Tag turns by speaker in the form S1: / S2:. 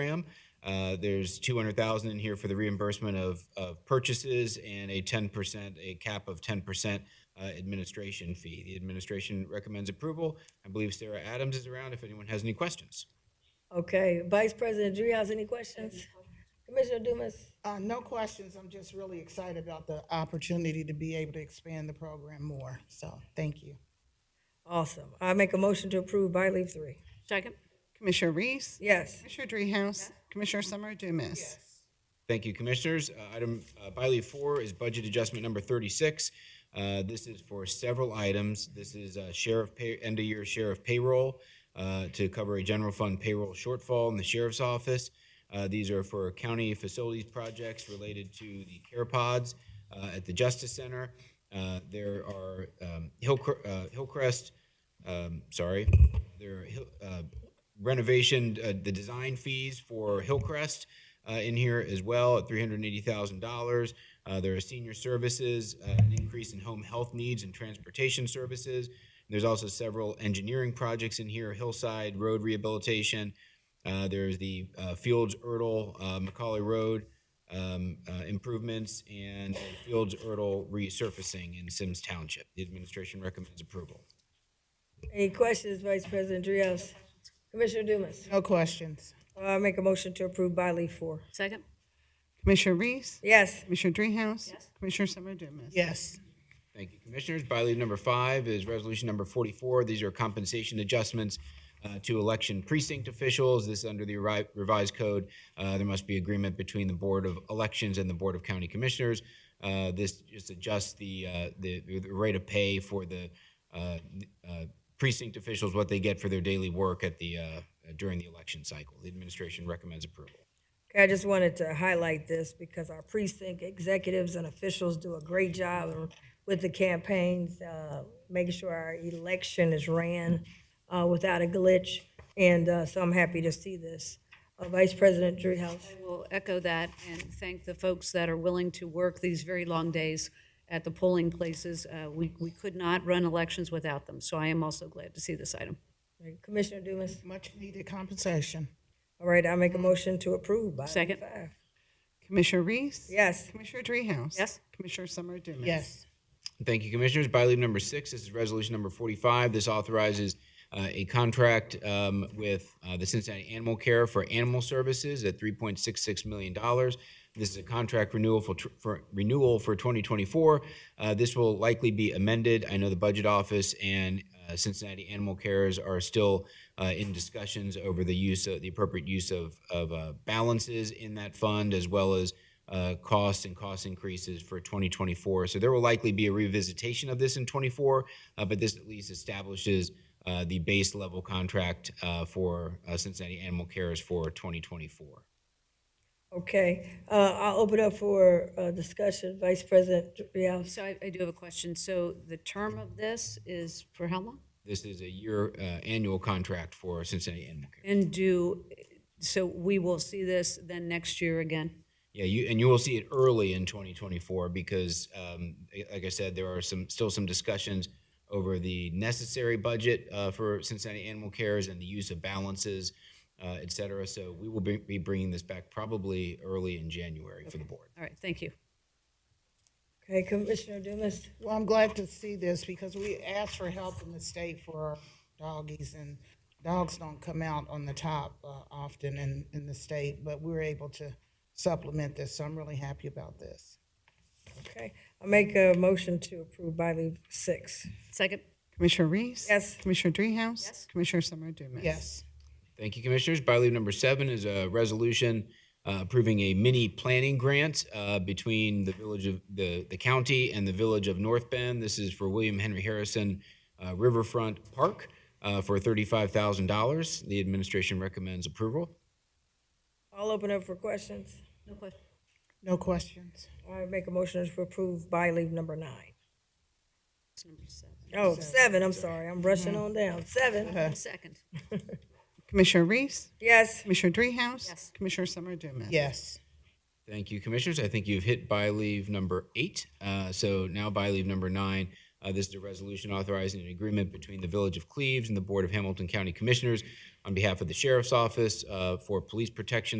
S1: program. Uh, There's 200,000 in here for the reimbursement of, of purchases and a 10%, a cap of 10% uh, administration fee. The administration recommends approval. I believe Sarah Adams is around if anyone has any questions.
S2: Okay, Vice President Dreehouse, any questions? Commissioner Dumas?
S3: Uh, no questions. I'm just really excited about the opportunity to be able to expand the program more. So, thank you.
S2: Awesome. I make a motion to approve by leave three.
S4: Second.
S5: Commissioner Reese?
S2: Yes.
S5: Commissioner Dreehouse? Commissioner Summer Dumas?
S1: Thank you, Commissioners. Uh, Item uh, by leave four is budget adjustment number 36. Uh, This is for several items. This is uh, sheriff pay, end-of-year sheriff payroll uh, to cover a general fund payroll shortfall in the sheriff's office. Uh, These are for county facilities projects related to the care pods uh, at the Justice Center. Uh, There are um, Hillcre- uh, Hillcrest, um, sorry, there are Hill- uh, renovation, uh, the design fees for Hillcrest uh, in here as well at $380,000. Uh, There are senior services, uh, an increase in home health needs and transportation services. There's also several engineering projects in here, hillside, road rehabilitation. Uh, There's the uh, Fields Erdel uh, Macaulay Road um, uh, improvements and a Fields Erdel resurfacing in Sims Township. The administration recommends approval.
S2: Any questions, Vice President Dreehouse? Commissioner Dumas?
S3: No questions.
S2: I make a motion to approve by leave four.
S4: Second.
S5: Commissioner Reese?
S2: Yes.
S5: Commissioner Dreehouse? Commissioner Summer Dumas?
S3: Yes.
S1: Thank you, Commissioners. By leave number five is resolution number 44. These are compensation adjustments uh, to election precinct officials. This is under the revi- revised code. Uh, There must be agreement between the Board of Elections and the Board of County Commissioners. Uh, This just adjusts the, uh, the the rate of pay for the uh, uh, precinct officials, what they get for their daily work at the, uh, during the election cycle. The administration recommends approval.
S2: Okay, I just wanted to highlight this because our precinct executives and officials do a great job with the campaigns, uh, making sure our election is ran uh, without a glitch. And uh, so I'm happy to see this. Uh, Vice President Dreehouse?
S4: I will echo that and thank the folks that are willing to work these very long days at the polling places. Uh, We we could not run elections without them, so I am also glad to see this item.
S2: Commissioner Dumas?
S3: Much needed compensation.
S2: All right, I make a motion to approve by
S4: Mm-hmm. Second.
S2: five.
S5: Commissioner Reese?
S2: Yes,
S5: Commissioner Dreehouse?
S4: Yes.
S5: Commissioner Summer Dumas?
S3: Yes.
S1: Thank you, Commissioners. By leave number six, this is resolution number 45. This authorizes uh, a contract um, with uh, the Cincinnati Animal Care for animal services at $3.66 million. This is a contract renewal for, tr- for renewal for 2024. Uh, This will likely be amended. I know the Budget Office and uh, Cincinnati Animal Cares are still uh, in discussions over the use, of the appropriate use of, of uh, balances in that fund, as well as uh, costs and cost increases for 2024. So there will likely be a revisitation of this in '24, but this at least establishes uh, the base level contract uh, for uh, Cincinnati Animal Cares for 2024.
S2: okay. Uh, I'll open up for uh, discussion, Vice President Rios.
S4: So I I do have a question. So the term of this is for how long?
S1: This is a year, uh, annual contract for Cincinnati Animal Care.
S4: And do, so we will see this then next year again?
S1: Yeah, you, and you will see it early in 2024 because, um, i- like I said, there are some, still some discussions over the necessary budget uh, for Cincinnati Animal Cares and the use of balances, uh, et cetera. So we will be be bringing this back probably early in January for the board.
S4: All right, thank you.
S2: Okay, Commissioner Dumas,
S3: Well, I'm glad to see this because we asked for help in the state for our doggies, and dogs don't come out on the top uh, often in, in the state, but we were able to supplement this. So, I'm really happy about this.
S2: okay. I make a motion to approve by leave six.
S4: Second.
S5: Commissioner Reese?
S2: Yes.
S5: Commissioner Dreehouse? Yes. Commissioner Summer Dumas?
S3: Yes.
S1: Thank you, Commissioners. By leave number seven is a resolution uh, approving a mini planning grant uh, between the village of, the, the county and the village of North Bend. This is for William Henry Harrison uh, Riverfront Park uh, for $35,000. The administration recommends approval.
S2: I'll open up for questions.
S4: No question.
S3: No questions.
S2: I make a motion to approve by leave number nine.
S4: Number seven. Mm-hmm.
S2: Oh, seven, I'm sorry, I'm rushing on down. Seven,
S4: Second.
S5: Commissioner Reese?
S2: yes,
S5: Commissioner Dreehouse?
S4: Yes.
S5: Commissioner Summer Dumas?
S3: Yes.
S1: Thank you, Commissioners. I think you've hit by leave number eight. Uh, So now by leave number nine Uh, This is a resolution authorizing an agreement between the Village of Cleves and the Board of Hamilton County Commissioners on behalf of the Sheriff's Office uh, for police protection